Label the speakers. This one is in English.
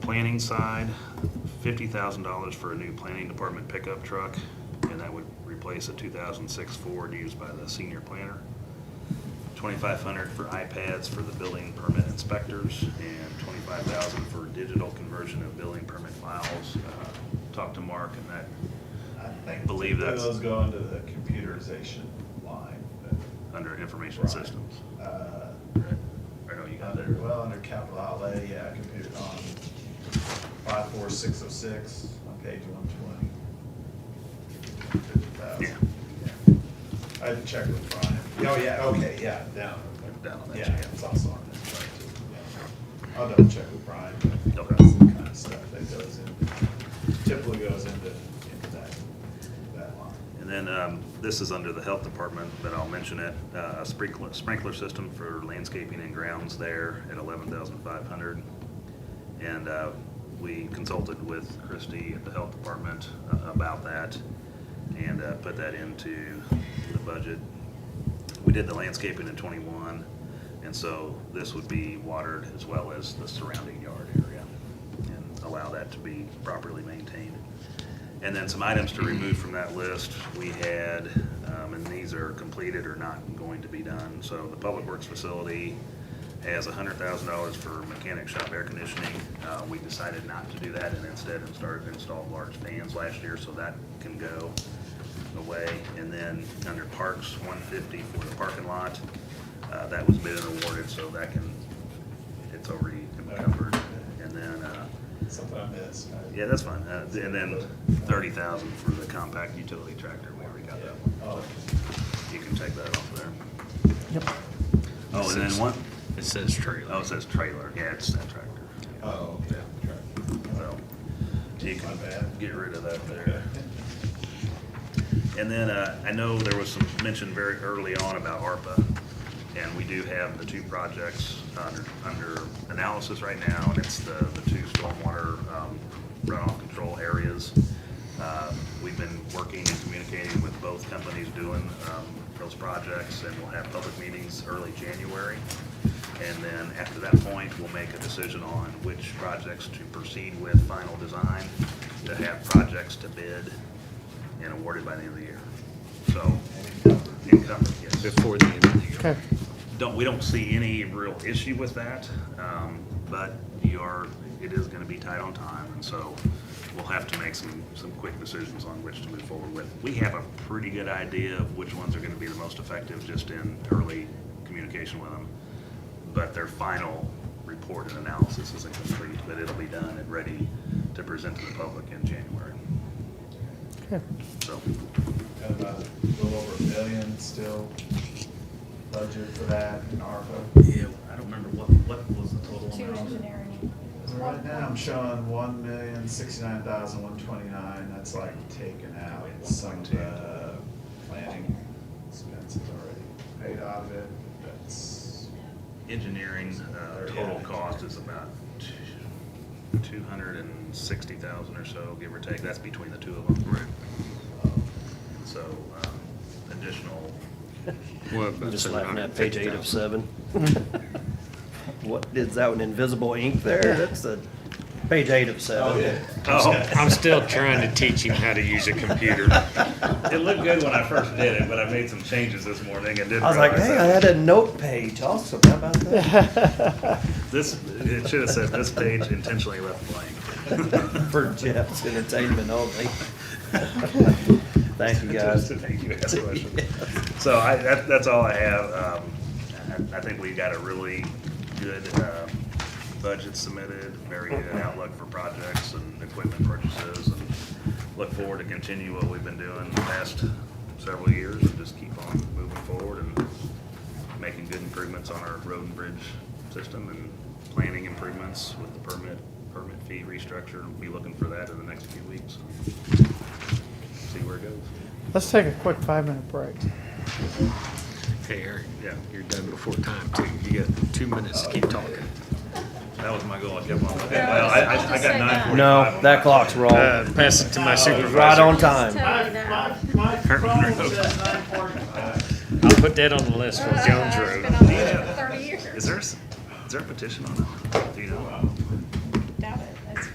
Speaker 1: planning side, fifty thousand dollars for a new planning department pickup truck, and that would replace a two thousand six Ford used by the senior planner. Twenty-five hundred for iPads for the building permit inspectors, and twenty-five thousand for digital conversion of building permit files. Uh, Talked to Mark and that,
Speaker 2: I think
Speaker 1: Believe
Speaker 2: typically
Speaker 1: that's-
Speaker 2: Those go into the computerization line. but,
Speaker 1: under information
Speaker 2: Right.
Speaker 1: systems.
Speaker 2: uh,
Speaker 1: Or no, you got
Speaker 2: Under,
Speaker 1: there.
Speaker 2: well, under capital outlay, yeah, computer on five four six oh six, on page one twenty. Fifty
Speaker 1: Yeah.
Speaker 2: thousand. I had to check with Brian. Oh, yeah, okay, yeah, down.
Speaker 1: Down on that,
Speaker 2: Yeah,
Speaker 1: yeah.
Speaker 2: it's also on that chart too. yeah. I'll double check with Brian. but
Speaker 1: Okay.
Speaker 2: That's the kind of stuff that goes in, typically goes into, into that, that line.
Speaker 1: And then, um, this is under the health department, but I'll mention it, uh, a sprinkler, sprinkler system for landscaping and grounds there at eleven thousand five hundred. And, uh, we consulted with Christie at the health department uh, about that and, uh, put that into the budget. We did the landscaping in twenty-one, and so this would be watered as well as the surrounding yard area and allow that to be properly maintained. And then some items to remove from that list, we had, um, and these are completed or not going to be done. So the Public Works Facility has hundred thousand dollars for mechanic shop air conditioning. Uh, we decided not to do that and instead started installed large fans last year, so that can go away. And then under Parks, one fifty for the parking lot, uh, that was bid and awarded, so that can, it's already covered. And then, uh,
Speaker 2: Something I missed. I-
Speaker 1: yeah, that's fine. Uh, And then thirty thousand for the compact utility tractor. We already
Speaker 2: Yeah.
Speaker 1: got that one.
Speaker 2: Oh,
Speaker 1: You can take that off there.
Speaker 3: Yep.
Speaker 1: Oh, and then one,
Speaker 4: It says
Speaker 1: oh,
Speaker 4: trailer.
Speaker 1: it says trailer. Yeah, it's that tractor.
Speaker 2: oh, okay.
Speaker 1: So you
Speaker 2: My
Speaker 1: can
Speaker 2: bad.
Speaker 1: get rid of that there. And then uh, I know there was some mention very early on about ARPA, and we do have the two projects under, under analysis right now, and it's the, the two stormwater um, runoff control areas. Uh, We've been working and communicating with both companies doing um, those projects, and we'll have public meetings early January. And then after that point, we'll make a decision on which projects to proceed with final design, to have projects to bid, and awarded by the end of the year. So, encumbered, yes.
Speaker 4: Before the end of the
Speaker 3: Okay.
Speaker 4: year.
Speaker 1: Don't, we don't see any real issue with that, um, but you are, it is gonna be tight on time, and so we'll have to make some, some quick decisions on which to move forward with. We have a pretty good idea of which ones are gonna be the most effective, just in early communication with them. But their final report and analysis isn't complete, but it'll be done and ready to present to the public in January.
Speaker 3: Okay.
Speaker 1: So,
Speaker 2: Got about a little over a million still budget for that in ARPA.
Speaker 4: Yeah, I don't remember what, what was the total
Speaker 5: Two engineering.
Speaker 2: Right now, I'm showing one million, sixty-nine thousand, one twenty-nine, that's like taken out some of the planning expenses already paid out of it, that's,
Speaker 1: engineering, uh, total cost is about two hundred and sixty thousand or so, give or take, that's between the two of them. Right. So, um, additional,
Speaker 6: Just laughing at page eight of seven. What, is that an invisible ink there? That's a, page eight of
Speaker 2: oh,
Speaker 6: seven.
Speaker 2: yeah.
Speaker 1: oh,
Speaker 4: I'm still trying to teach him how to use a computer.
Speaker 1: it looked good when I first did it, but I made some changes this morning and didn't
Speaker 6: I was like,
Speaker 1: realize
Speaker 6: hey, I had
Speaker 1: that.
Speaker 6: a note page also, how about that?
Speaker 1: This, it should have said, this page intentionally left blank.
Speaker 6: For Jeff's entertainment only. Thank you, guys.
Speaker 1: Thank you, ask questions. So I, that, that's all I have. Um, I, I think we got a really good, um, budget submitted, very good outlook for projects and equipment purchases. and Look forward to continue what we've been doing the past several years and just keep on moving forward and making good improvements on our road and bridge system and planning improvements with the permit, permit fee restructure. Be looking for that in the next few weeks. See where it goes.
Speaker 3: Let's take a quick five-minute break.
Speaker 4: Hey, Eric,
Speaker 1: Yeah.
Speaker 4: you're done before time too. You got two minutes to keep talking.
Speaker 1: That was my goal, I kept on looking.
Speaker 5: Yeah,
Speaker 1: Well, I, I
Speaker 5: I'll
Speaker 1: I
Speaker 5: just
Speaker 1: got
Speaker 5: say
Speaker 1: nine
Speaker 5: that.
Speaker 1: forty-five.
Speaker 6: No, that clock's wrong.
Speaker 4: Uh, pass it to my
Speaker 6: Oh, Right
Speaker 4: supervisor.
Speaker 6: on time.
Speaker 5: Tell
Speaker 2: My,
Speaker 5: me
Speaker 2: my,
Speaker 5: now.
Speaker 2: my phone's at nine forty-five.
Speaker 4: I'll put that on the list for
Speaker 5: Uh,
Speaker 4: Jones
Speaker 5: It's
Speaker 4: Road.
Speaker 5: been on there for thirty years.
Speaker 1: Is there, s- is there a petition on that? Do you know?